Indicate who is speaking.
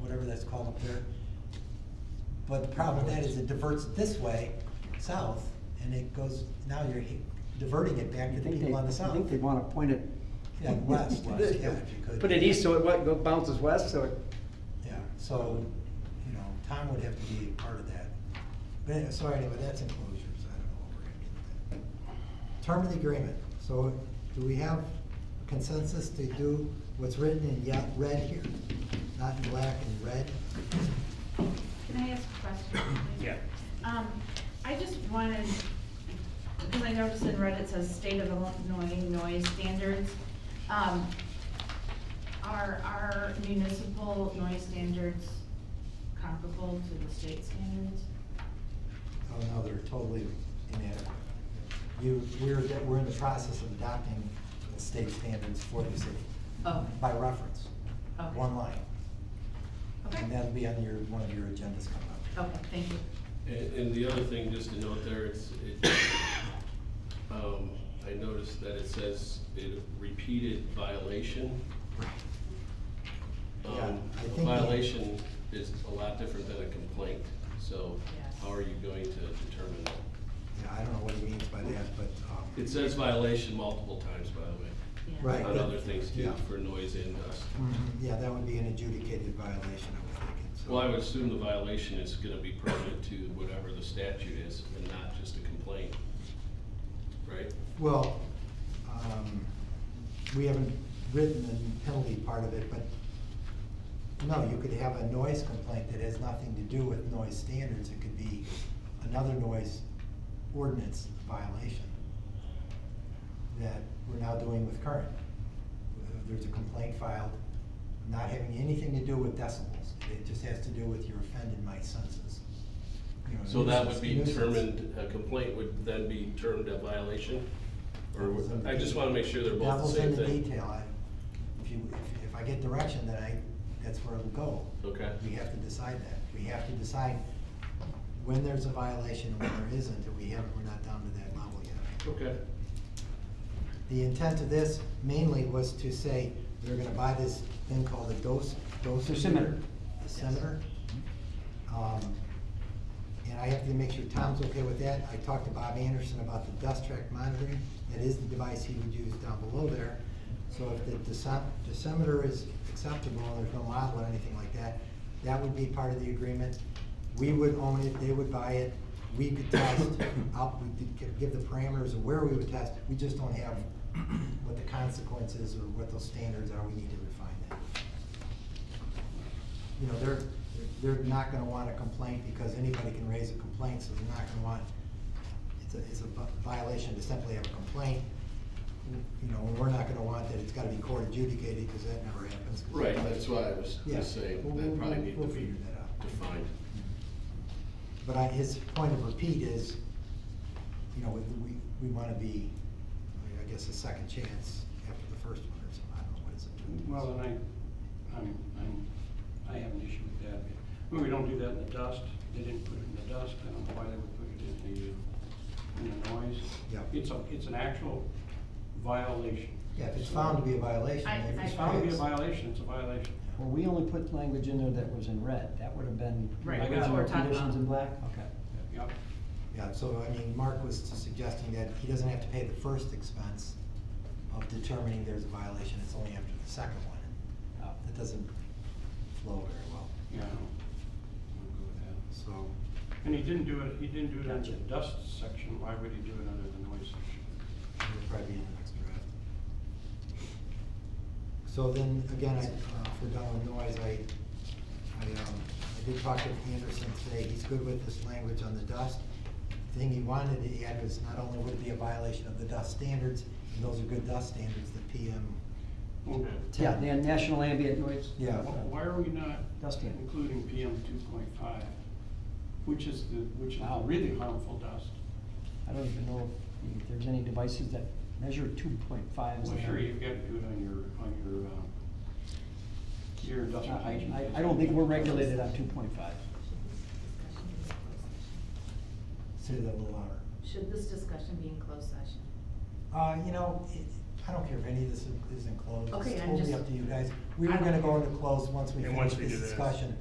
Speaker 1: whatever that's called up there. But the problem with that is it diverts this way, south, and it goes, now you're he- diverting it back to
Speaker 2: You
Speaker 1: the
Speaker 2: think they,
Speaker 1: people on the
Speaker 2: I
Speaker 1: south.
Speaker 2: think they wanna point it.
Speaker 1: Yeah, west, yeah, if you could.
Speaker 2: Put it east, so it what, go- bounces west, so it,
Speaker 1: Yeah, so, you know, Tom would have to be part of that. But, any- so anyway, that's enclosures, I don't know what we're gonna get with that. Term of the agreement, so do we have consensus to do what's written in yet red here? Not in black and red?
Speaker 3: Can I ask a question?
Speaker 4: Yeah.
Speaker 3: Um, I just wanted, because I noticed in Reddit it says state of Illinois noise standards. Um, are our municipal noise standards comparable to the state standards?
Speaker 1: Oh, no, they're totally inadequate. You, we're, we're in the process of adopting the state standards for the city.
Speaker 3: Oh.
Speaker 1: By reference,
Speaker 3: Okay.
Speaker 1: one line. And
Speaker 3: Okay,
Speaker 1: that'll be on your, one of your agendas coming up.
Speaker 3: okay, thank you.
Speaker 4: And, and the other thing, just to note there, it's, it, um, I noticed that it says it repeated violation. Um,
Speaker 1: Yeah, I
Speaker 4: a
Speaker 1: think the-
Speaker 4: Violation is a lot different than a complaint, so
Speaker 3: Yes.
Speaker 4: how are you going to determine that?
Speaker 1: Yeah, I don't know what he means by that, but, um.
Speaker 4: It says violation multiple times, by the way,
Speaker 3: Yeah.
Speaker 1: Right.
Speaker 4: on other things too,
Speaker 1: Yeah.
Speaker 4: for noise and dust.
Speaker 1: Mhm, Yeah, that would be an adjudicated violation, I was thinking, so.
Speaker 4: Well, I would assume the violation is gonna be pertinent to whatever the statute is and not just a complaint, right?
Speaker 1: Well, um, we haven't written the penalty part of it, but, no, you could have a noise complaint that has nothing to do with noise standards, it could be another noise ordinance violation that we're now doing with current. Uh, There's a complaint filed, not having anything to do with decibels, it just has to do with you're offending my senses. You know,
Speaker 4: So that would be
Speaker 1: nuisance-
Speaker 4: determined, a complaint would then be termed a violation? Or, would- I just wanna make sure they're both the
Speaker 1: Devil's
Speaker 4: same
Speaker 1: in
Speaker 4: thing.
Speaker 1: the detail, I, if you, if- if I get direction, then I, that's where it'll go.
Speaker 4: Okay.
Speaker 1: We have to decide that, we have to decide when there's a violation and when there isn't, and we haven't, we're not down to that level yet.
Speaker 4: Okay,
Speaker 1: The intent of this mainly was to say, they're gonna buy this thing called a dose, dose.
Speaker 2: Dosimeter.
Speaker 1: Dosimeter. Um, and I have to make sure Tom's okay with that. I talked to Bob Anderson about the dust track monitoring. That is the device he would use down below there. So if the deci- decimeter is acceptable, and there's no model or anything like that, that would be part of the agreement. We would own it, they would buy it, we could test, out, we could gi- give the parameters of where we would test. We just don't have what the consequences or what those standards are. We need to refine that you know, they're, they're not gonna want a complaint because anybody can raise a complaint, so they're not gonna want, it's a, it's a vi- violation to simply have a complaint. You know, and we're not gonna want that, it's gotta be court adjudicated, because that never happens.
Speaker 4: right, that's why I was
Speaker 1: Yeah.
Speaker 4: just saying,
Speaker 1: We'll-
Speaker 4: that probably
Speaker 1: we'll-
Speaker 4: need to
Speaker 1: we'll
Speaker 4: be
Speaker 1: figure that out.
Speaker 4: defined.
Speaker 1: But I, his point of repeat is, you know, we, we, we wanna be, I guess, a second chance after the first one or something, I don't know, what is it?
Speaker 5: Well, and I, I'm, I'm, I have an issue with that. I mean, we don't do that in the dust. They didn't put it in the dust. I don't know why they would put it in the, uh, in the noise.
Speaker 1: Yeah.
Speaker 5: It's a, it's an actual violation.
Speaker 1: Yeah, if it's found to be a violation,
Speaker 3: I-
Speaker 1: if
Speaker 3: I-
Speaker 1: it's
Speaker 5: It's found to be a
Speaker 1: fixed.
Speaker 5: violation, it's a violation.
Speaker 2: well, we only put language in there that was in red, that would have been.
Speaker 3: Right,
Speaker 5: that's what
Speaker 2: original
Speaker 3: we're talking
Speaker 2: Conditions
Speaker 3: about.
Speaker 2: in black, okay.
Speaker 5: Yep.
Speaker 1: Yeah, so I mean, Mark was suggesting that he doesn't have to pay the first expense of determining there's a violation, it's only after the second one.
Speaker 2: Oh.
Speaker 1: That doesn't flow very well,
Speaker 5: Yeah. I don't- I don't go with that.
Speaker 1: so,
Speaker 5: And he didn't do it, he didn't do it under the
Speaker 2: Gotcha.
Speaker 5: dust section. Why would he do it under the noise section?
Speaker 1: it'll probably be in the next draft. So then, again, I, uh, for Donald Noise, I, I, um, I did talk to Anderson today, he's good with this language on the dust. The Thing he wanted to add was not only would it be a violation of the dust standards, and those are good dust standards, the PM,
Speaker 5: Well,
Speaker 2: Yeah, the national ambient noise.
Speaker 1: yeah.
Speaker 5: wh- Why are we not
Speaker 2: Dust in.
Speaker 5: including PM two point five, which is the, which is the really harmful dust?
Speaker 2: I don't even know if there's any devices that measure two point five.
Speaker 5: Well, sure, you've got to do it on your, on your, um, your industrial hygiene.
Speaker 2: I, I don't think we're regulated on two point five.
Speaker 1: Say that a little louder.
Speaker 6: Should this discussion be in closed session?
Speaker 1: Uh, you know, it, I don't care if any of this is- is enclosed,
Speaker 3: Okay,
Speaker 1: it's
Speaker 3: I'm
Speaker 1: totally
Speaker 3: just-
Speaker 1: up to you guys. We were
Speaker 3: I don't
Speaker 1: gonna go
Speaker 3: care.
Speaker 1: into closed once we
Speaker 6: And
Speaker 1: finish
Speaker 6: once we
Speaker 1: this
Speaker 6: do this.
Speaker 1: discussion.